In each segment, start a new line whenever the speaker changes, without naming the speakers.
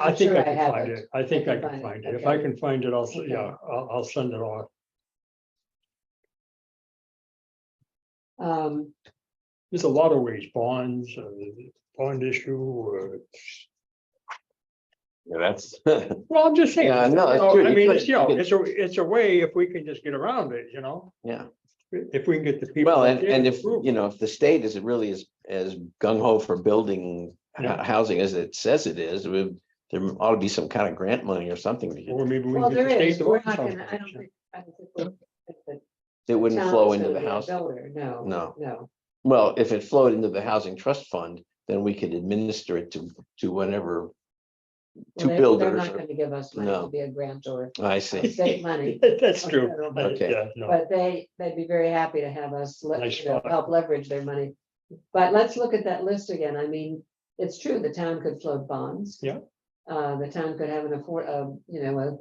I
I'm
think
sure
I can
have
find it. I think I can find it. If I
okay.
can find it, I'll, s-
Okay.
yeah, I'll, I'll send it off.
Um,
There's a lot of ways, bonds, uh, bond issue,
Yeah, that's,
uh, well, I'm just saying.
Yeah, no, that's
you know,
true.
I
You
mean,
could-
it's, you know,
you could-
it's a, it's a way if we can just get around it, you know,
yeah,
if we can get the people.
well, and,
that
and
did
if,
approve.
you know, if the state is really as, as gung ho for building
Yeah.
hou- housing as it says it is, we- there ought to be some kind of grant money or something to get-
Or maybe we
well,
can get
there
the state
is,
to
we're
vote
not
on
gonna, I don't
something.
think. I don't think we're- the
that wouldn't
town
flow
is
into
gonna
the
be a
house.
builder, No.
No.
No,
Well, if it flowed into the housing trust fund, then we could administer it to, to whenever.
Well,
To
they- They're
builders,
not
or-
gonna give us money to
No.
be a grantor,
I
of
see,
state money,
That's
or
true.
federal money,
Okay.
Yeah, no.
but they, they'd be very happy to have us, le-
Nice
you know,
thought.
help leverage their money. But let's look at that list again, I mean, it's true, the town could float bonds.
Yeah.
Uh, the town could have an afford, uh, you know, a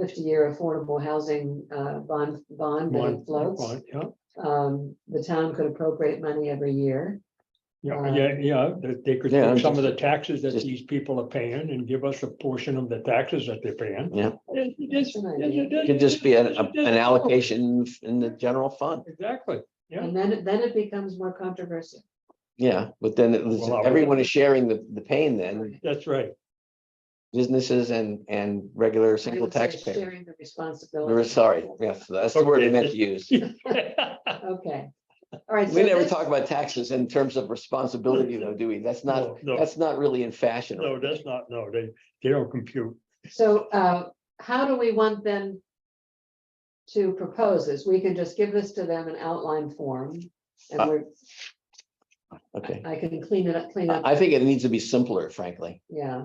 fifty-year affordable housing, uh, bond, bond that
Bond-
floats.
bond, Yeah,
Um, the town could appropriate money every year.
yeah,
Um,
yeah, yeah, that they could
Yeah, I'm
take some of the
just-
taxes that
just-
these people are paying and give us a portion of the taxes that they're paying.
yeah,
It- it is-
That's an
it
idea.
is-
it could just be an,
it is-
an allocation in the general fund,
Exactly, Yeah.
And then, it- then it becomes more controversial.
yeah, but then it was,
Well, I would-
everyone is sharing the, the pain then,
that's right.
businesses and, and regular
I
single
would say
taxpayer.
Sharing the
We're
responsibility.
sorry, yes, that's the word I
Okay.
meant to use.
Okay, all right.
We
so
never
this-
talk about taxes in terms of responsibility though, do we? That's not,
No, No,
that's not really in fashion.
no, that's not, no, they, they don't compute.
So, uh, how do we want them to propose this? We can just give this to them in outline form.
Uh,
And we're,
Okay,
I can clean it up, clean up,
I I think it needs to be simpler, frankly.
yeah,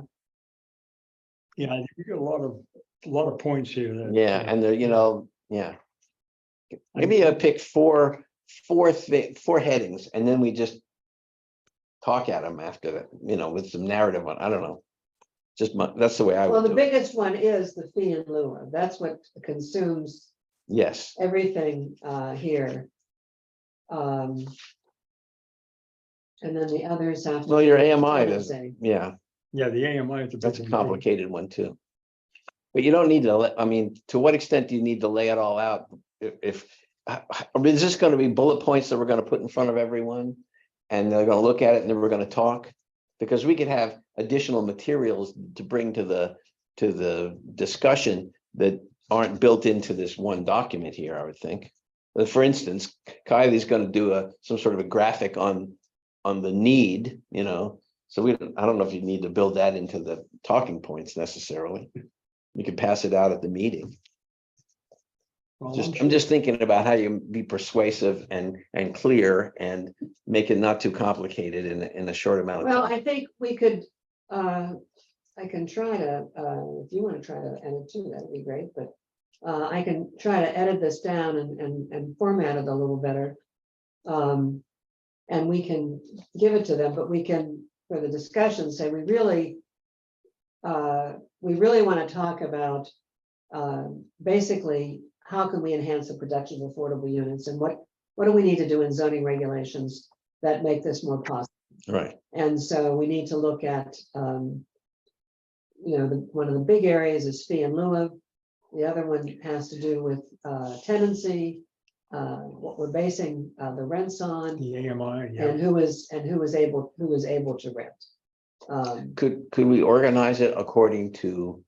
Yeah, you get a lot of, a lot of points here. that- uh,
Yeah, and there, you know, yeah. Maybe I pick four, four, thi- four headings and then we just talk at them after that, you know, with some narrative on, I don't know. Just my, that's the way I
well,
would
the
do it.
biggest one is the fee in lieu of, that's what consumes
Yes,
everything uh here. Um. And then the others have. to
well, your
be
AMI
tenant
does,
safe.
yeah.
Yeah, the AMI is a.
That's a
big one, too.
complicated one too. But you don't need to, let- I mean, to what extent do you need to lay it all out? If, if, I- I mean, is this gonna be bullet points that we're gonna put in front of everyone? And they're gonna look at it and then we're gonna talk? Because we could have additional materials to bring to the, to the discussion that aren't built into this one document here, I would think. But For instance, Kylie's gonna do a, some sort of a graphic on, on the need, you know? So we, don't- I don't know if you need to build that into the talking points necessarily. You can pass it out at the meeting.
Well, Oh, I'm
Just,
sure-
I'm just thinking about how you be persuasive and, and clear and make it not too complicated in, a- in a short amount of
Well,
time.
I think we could, uh, I can try to, uh, if you want to try to edit too, that'd be great, but. Uh, I can try to edit this down and, and, and format it a little better. Um, and we can give it to them, but we can, for the discussion, say we really. Uh, we really want to talk about, uh, basically, how can we enhance the production of affordable units and what. What do we need to do in zoning regulations that make this more possible?
Right,
And so we need to look at, um, you know, the, one of the big areas is fee and lieu of. The other one has to do with, uh, tenancy, uh, what we're basing, uh, the rents on
The AMI, yeah.
and who is, and who is able, who is able to rent. Um,
could, could we organize it according to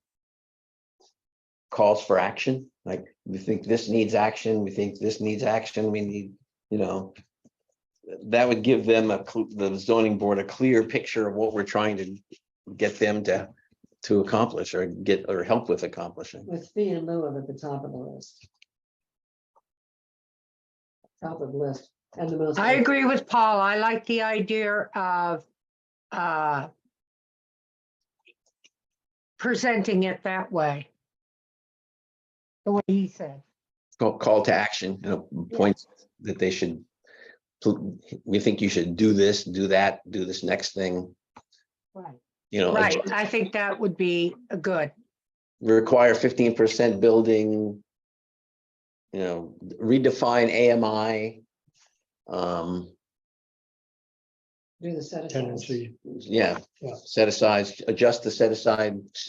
calls for action? Like, we think this needs action, we think this needs action, we need, you know. That would give them a, cl- the zoning board a clear picture of what we're trying to get them to, to accomplish or get, or help with accomplishing.
with fee and lieu of at the top of the list. Top of the list and the most.
I agree with Paul. I like the idea of uh, presenting it that way. The way he said.
Call, call to action, you know, points that they should, pl- we think you should do this, do that, do this next thing,
Right.
you know.
Right. I think that would be a good.
require fifteen percent building. You know, redefine AMI. Um,
Do the set aside.
Tendency.
yeah,
Yeah.
set aside, adjust the set aside